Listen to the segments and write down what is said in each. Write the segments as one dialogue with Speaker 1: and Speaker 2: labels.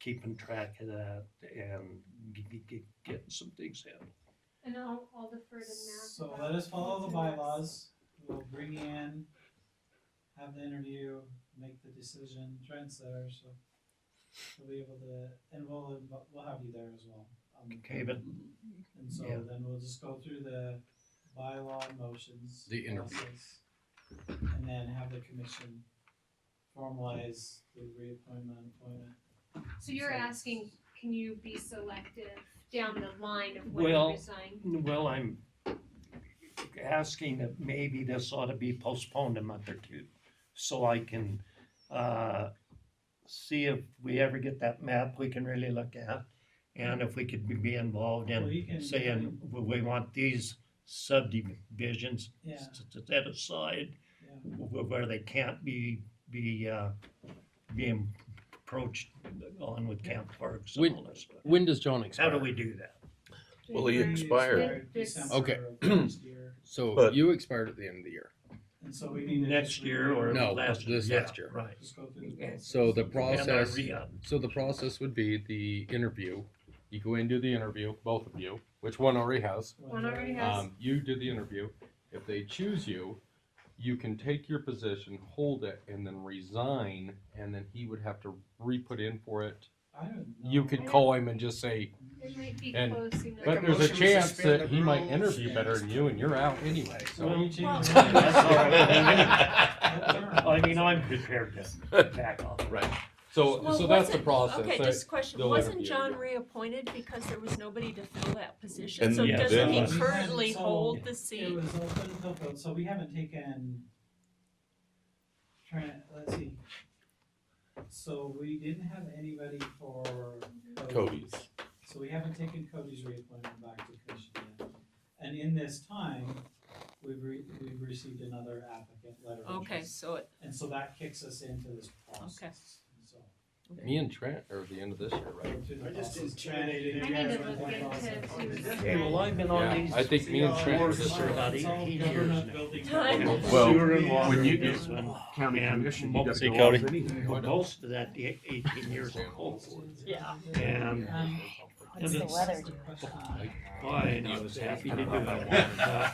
Speaker 1: keeping track of that and g- g- g- getting some things handled.
Speaker 2: And I'll, I'll defer to Matt.
Speaker 3: So
Speaker 2: about
Speaker 3: let us follow the
Speaker 2: what's next.
Speaker 3: bylaws, we'll bring you in, have the interview, make the decision, Trent's there, so we'll be able to, and we'll, inv- we'll have you there as well. um,
Speaker 1: Okay, but
Speaker 3: And so
Speaker 1: yeah.
Speaker 3: then we'll just go through the bylaw motions.
Speaker 4: The interview.
Speaker 3: process, And then have the commission formalize the reappointment, appointment.
Speaker 2: So you're
Speaker 3: so-
Speaker 2: asking, can you be selective down the line of when you
Speaker 1: Well-
Speaker 2: resign?
Speaker 1: Well, I'm asking that maybe this ought to be postponed a month or two, so I can, uh, see if we ever get that map we can really look at, and if we could be- be involved
Speaker 3: Well, you
Speaker 1: in
Speaker 3: can-
Speaker 1: saying, "Well, we want these subdivisions
Speaker 3: Yeah,
Speaker 1: s- s- set aside,
Speaker 3: Yeah.
Speaker 1: wh- where they can't be, be, uh, being approached on with camp parks and
Speaker 4: When-
Speaker 1: all that stuff.
Speaker 4: When does John
Speaker 1: How
Speaker 4: expire?
Speaker 1: do we do that?
Speaker 5: Well, he expired.
Speaker 2: This-
Speaker 3: December
Speaker 4: Okay.
Speaker 3: of last year.
Speaker 4: So
Speaker 5: But-
Speaker 4: you expired at the end of the year.
Speaker 3: And so we need to.
Speaker 1: Next
Speaker 3: just
Speaker 1: year or
Speaker 4: No,
Speaker 1: last?
Speaker 4: this
Speaker 1: yeah,
Speaker 4: next year.
Speaker 1: Right.
Speaker 3: Just go through the.
Speaker 1: And
Speaker 4: so the
Speaker 3: process.
Speaker 1: And uh, I
Speaker 4: Process.
Speaker 1: re-up.
Speaker 4: So the process would be the interview. You go in, do the interview, both of you, which one already has.
Speaker 2: One already has-
Speaker 4: Um, you do the interview. If they choose you, you can take your position, hold it, and then resign, and then he would have to re-put in for it.
Speaker 3: I don't know.
Speaker 4: You could call him and just say,
Speaker 2: It might be
Speaker 4: And-
Speaker 2: close enough.
Speaker 4: but
Speaker 6: a
Speaker 4: there's a
Speaker 6: motion to
Speaker 4: chance
Speaker 6: suspend
Speaker 4: that
Speaker 6: the
Speaker 4: he might
Speaker 6: rules."
Speaker 4: interview better than you, and you're out anyway,
Speaker 3: So
Speaker 4: so.
Speaker 3: we change.
Speaker 2: Well-
Speaker 3: the-
Speaker 1: That's all
Speaker 3: That's all
Speaker 1: I
Speaker 3: right.
Speaker 1: mean, I'm prepared to back off.
Speaker 4: So,
Speaker 7: Well,
Speaker 4: so that's the
Speaker 7: wasn't-
Speaker 4: process.
Speaker 7: Okay,
Speaker 4: That-
Speaker 7: just a question,
Speaker 4: they'll
Speaker 7: wasn't
Speaker 4: interview
Speaker 7: John
Speaker 4: you.
Speaker 7: reappointed because there was nobody to fill that position?
Speaker 5: And
Speaker 7: So
Speaker 1: yeah,
Speaker 7: doesn't
Speaker 5: then-
Speaker 7: he currently
Speaker 3: So-
Speaker 7: hold the
Speaker 3: It
Speaker 7: seat?
Speaker 3: was open till vote, so we haven't taken, trying, to- let's see. So we didn't have anybody for
Speaker 5: Cody's.
Speaker 3: So we haven't taken Cody's reappointment back to commission yet. And in this time, we've re, we've received another applicant letter. of
Speaker 7: Okay,
Speaker 3: interest.
Speaker 7: so it,
Speaker 3: And so that kicks us into this process. So.
Speaker 4: Me and Trent are at the end of this year, right?
Speaker 3: go through the
Speaker 6: I just
Speaker 3: process.
Speaker 6: intimidated
Speaker 2: I
Speaker 3: Trying
Speaker 2: need to
Speaker 3: do
Speaker 2: look
Speaker 3: the
Speaker 2: into
Speaker 3: process.
Speaker 2: who's-
Speaker 1: Well, I've been on
Speaker 4: Yeah,
Speaker 1: these.
Speaker 4: I think me and Trent are
Speaker 1: boards
Speaker 4: just
Speaker 1: for
Speaker 4: around.
Speaker 1: about
Speaker 3: It's all
Speaker 1: eighteen years
Speaker 3: government
Speaker 1: now.
Speaker 3: building.
Speaker 7: Time.
Speaker 5: Well,
Speaker 1: Sewer and water
Speaker 5: when you
Speaker 1: is
Speaker 5: get-
Speaker 1: one.
Speaker 6: county
Speaker 1: And
Speaker 6: commission, you got
Speaker 1: most-
Speaker 6: to go off
Speaker 1: Cody.
Speaker 6: anyway.
Speaker 1: Well, Most of that, the eighteen years of cold war.
Speaker 7: yeah.
Speaker 1: And
Speaker 3: Um,
Speaker 1: What's the
Speaker 8: weather
Speaker 1: boy, I was happy to do it. Uh,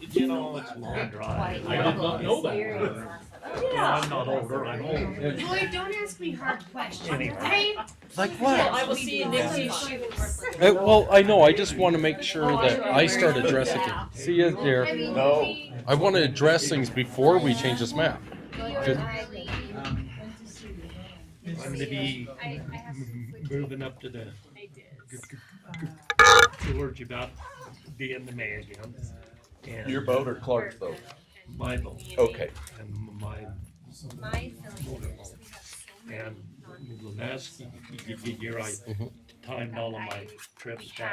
Speaker 1: You know, it's long drive. I did not know that. You know, I'm not older, I'm older.
Speaker 2: Lloyd, don't ask me hard questions,
Speaker 1: Anyway.
Speaker 2: okay?
Speaker 4: Like
Speaker 7: Well, I will see you next
Speaker 2: Please.
Speaker 7: week.
Speaker 4: well, I know, I just want to make sure
Speaker 7: Oh,
Speaker 4: that
Speaker 7: I
Speaker 4: I start
Speaker 7: remember.
Speaker 4: addressing,
Speaker 7: Yeah.
Speaker 4: see you
Speaker 2: I
Speaker 4: there.
Speaker 2: mean,
Speaker 5: No.
Speaker 2: we-
Speaker 4: I want to address things before we change this map.
Speaker 2: you're right.
Speaker 3: Um,
Speaker 1: I'm gonna be
Speaker 2: I, I have some conflict.
Speaker 1: moving up to the,
Speaker 2: I did.
Speaker 1: George about being the mayor again. And
Speaker 5: Your vote or Clark's vote?
Speaker 1: My vote.
Speaker 5: Okay.
Speaker 1: And my
Speaker 3: so-
Speaker 2: My feeling is we have so many
Speaker 1: And
Speaker 2: non-
Speaker 1: the last y- y- y- year I timed all of my trips back